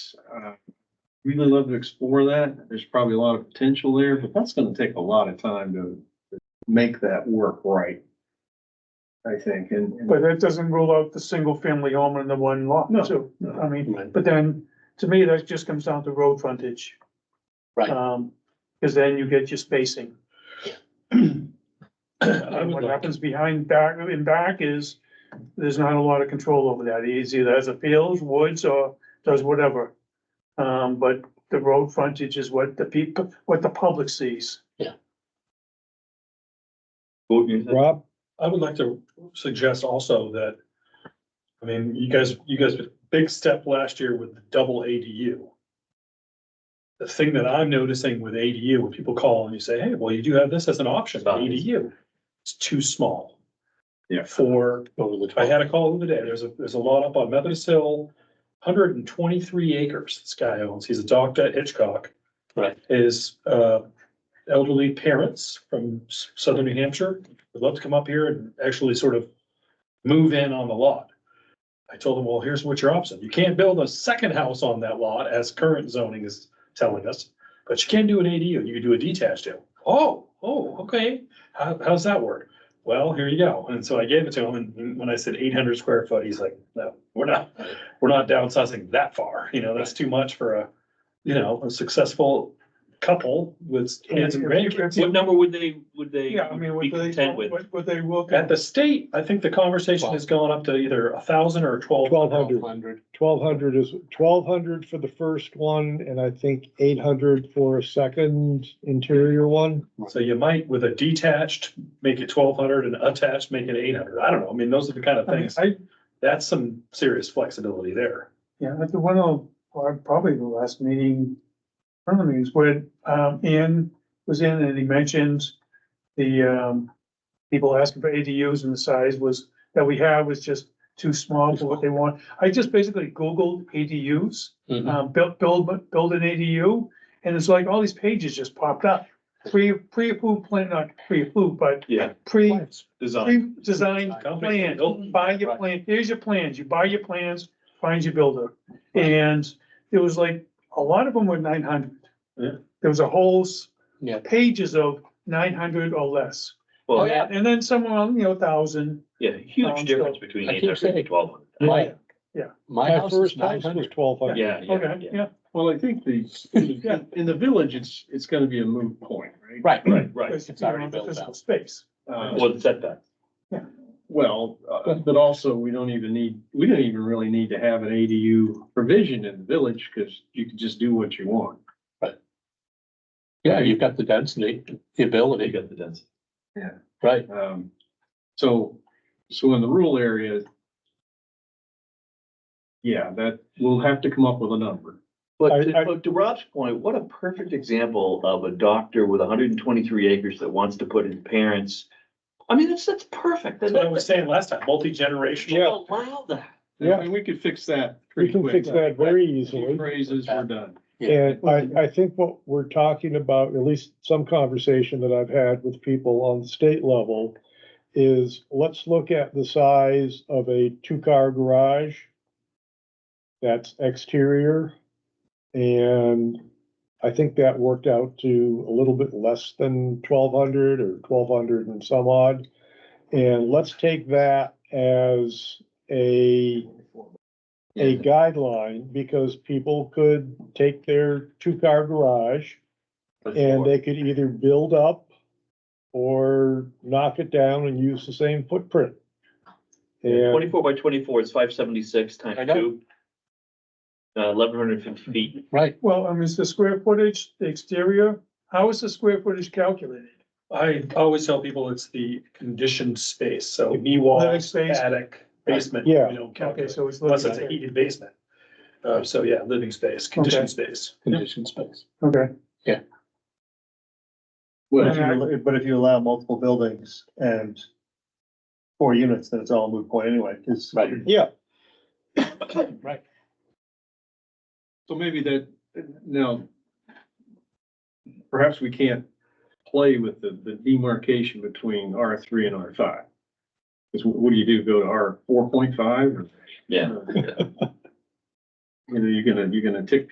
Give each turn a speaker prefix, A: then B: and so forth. A: space. Uh, Really love to explore that. There's probably a lot of potential there, but that's gonna take a lot of time to to make that work right. I think, and. and-
B: But that doesn't rule out the single family home and the one lot,
A: No,
B: too.
A: no.
B: I mean,
C: Right.
B: but then, to me, that just comes down to road frontage.
C: Right.
B: Um, cause then you get your spacing.
C: I
B: And
C: would
B: what
C: like,
B: happens behind back, in back is, there's not a lot of control over that. He's either has a field, woods, or does whatever. Um, but the road frontage is what the people, what the public sees.
D: Rob? I would like to suggest also that, I mean, you guys, you guys, did a big step last year with the double ADU. The thing that I'm noticing with ADU, when people call and you say, hey, well, you do have this as an option,
C: Size.
D: ADU, it's too small.
A: Yeah.
D: For,
C: over the
D: I
C: top.
D: had a call the other day, there's a, there's a lot up on Methodist Hill, hundred and twenty-three acres this guy owns, he's a doctor at Hitchcock.
C: Right.
D: His uh, elderly parents from s- southern New Hampshire would love to come up here and actually sort of move in on the lot. I told them, well, here's what your option, you can't build a second house on that lot as current zoning is telling us, but you can do an ADU, you can do a detached ADU. Oh, oh, okay, how, how's that work? Well, here you go, and so I gave it to him, and when I said eight hundred square foot, he's like, no, we're not, we're not downsizing that far, you know, that's too much for a, you know, a successful couple with kids and grandkids.
C: What number would they, would they
B: Yeah, I mean,
C: be
B: what they,
C: content with?
B: what, what they look
D: At
B: at.
D: the state, I think the conversation has gone up to either a thousand or twelve.
E: Twelve hundred. Twelve hundred is, twelve hundred for the first one, and I think eight hundred for a second interior one.
D: So you might with a detached, make it twelve hundred and attached, make it eight hundred. I don't know. I mean, those are the kind of
B: I mean,
D: things.
B: I,
D: That's some serious flexibility there.
B: Yeah, at the one of, or probably the last meeting, one of the meetings where, um, Ian was in and he mentioned the, um, people asking for ADUs and the size was, that we have was just too small for what they want. I just basically Googled ADUs,
C: Mhm.
B: um, build, build, build an ADU, and it's like all these pages just popped up. Pre, pre-approved plan, not pre-approved, but
A: Yeah,
B: pre,
C: Oh,
A: design.
B: pre-designed
D: Company.
B: plan, buy your plan, here's your plans, you buy your plans, find your builder. And it was like, a lot of them were nine hundred.
D: Yeah.
B: There was a whole s-
C: Yeah.
B: pages of nine hundred or less.
C: Oh,
A: Well,
C: yeah.
B: And then someone, you know, thousand,
A: yeah,
B: Um,
A: huge difference
B: so-
A: between
C: I keep
A: eight hundred
C: saying-
A: and twelve hundred.
C: My,
B: Yeah.
C: my
E: My
C: house is
E: first
C: nine
E: house was
C: hundred.
E: twelve hundred.
A: Yeah, yeah,
B: okay,
A: yeah.
B: yeah.
A: Well, I think the,
B: Yeah.
A: in the village, it's, it's gonna be a moot point, right?
C: Right,
A: Right, right.
B: because
C: it's
B: you don't
C: already
B: have the
C: built
B: physical
C: out.
B: Space.
A: Uh,
C: Well, the setback.
A: Well, uh, but also, we don't even need, we don't even really need to have an ADU provision in the village, because you can just do what you want.
C: Yeah, you've got the density, the ability. You got the density.
A: Yeah.
C: Right,
A: Um, so, so in the rural area, yeah, that, we'll have to come up with a number.
E: I-
F: But to,
E: I-
F: but to Rob's point, what a perfect example of a doctor with hundred and twenty-three acres that wants to put his parents. I mean, that's, that's perfect.
D: That's what I was saying last time, multi-generational.
F: Allow that.
E: Yeah.
A: And we could fix that
E: We
A: pretty
E: can
A: quick.
E: fix that very
A: Two
E: easily.
A: Phrases, we're done.
C: yeah,
E: And I, I think what we're talking about, at least some conversation that I've had with people on the state level, is let's look at the size of a two-car garage. That's exterior. And I think that worked out to a little bit less than twelve hundred or twelve hundred and some odd. And let's take that as a a guideline because people could take their two-car garage and they could either build up or knock it down and use the same footprint. And
F: Twenty-four by twenty-four is five seventy-six
C: I
F: times
C: know.
F: two. Uh, eleven hundred and fifty feet.
C: right.
B: Well, I mean, it's the square footage, the exterior, how is the square footage calculated?
D: I always tell people it's the conditioned space, so knee
B: Living
D: walls,
B: space.
D: attic, basement.
E: Yeah.
D: we don't
B: Okay,
D: calculate,
B: so it's.
D: Unless
B: looking
D: it's a
B: at-
D: heated basement. Uh, so yeah, living space,
B: Okay.
D: conditioned space.
C: Condition space.
B: Okay.
A: Well,
B: And
G: But if you allow multiple buildings and four units, then it's all a moot point anyway, 'cause
C: Right,
E: yeah,
C: right.
A: So maybe that, now, perhaps we can't play with the, the demarcation between R three and R five. Because what do you do, go to R four point five?
F: Yeah.
A: you know, you're gonna, you're gonna tick